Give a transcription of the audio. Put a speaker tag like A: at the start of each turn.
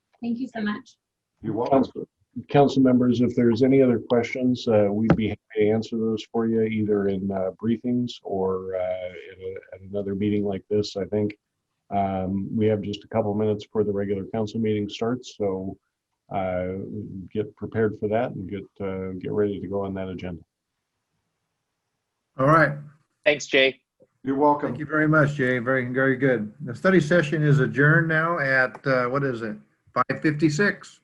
A: Thank you so much.
B: You're welcome.
C: Council- Council members, if there's any other questions, uh, we'd be happy to answer those for you either in uh, briefings or uh, at a- at another meeting like this, I think. Um, We have just a couple minutes before the regular council meeting starts, so uh, get prepared for that and get, uh, get ready to go on that agenda.
D: All right.
E: Thanks, Jay.
B: You're welcome.
D: Thank you very much, Jay. Very, very good. The study session is adjourned now at, uh, what is it? 5:56.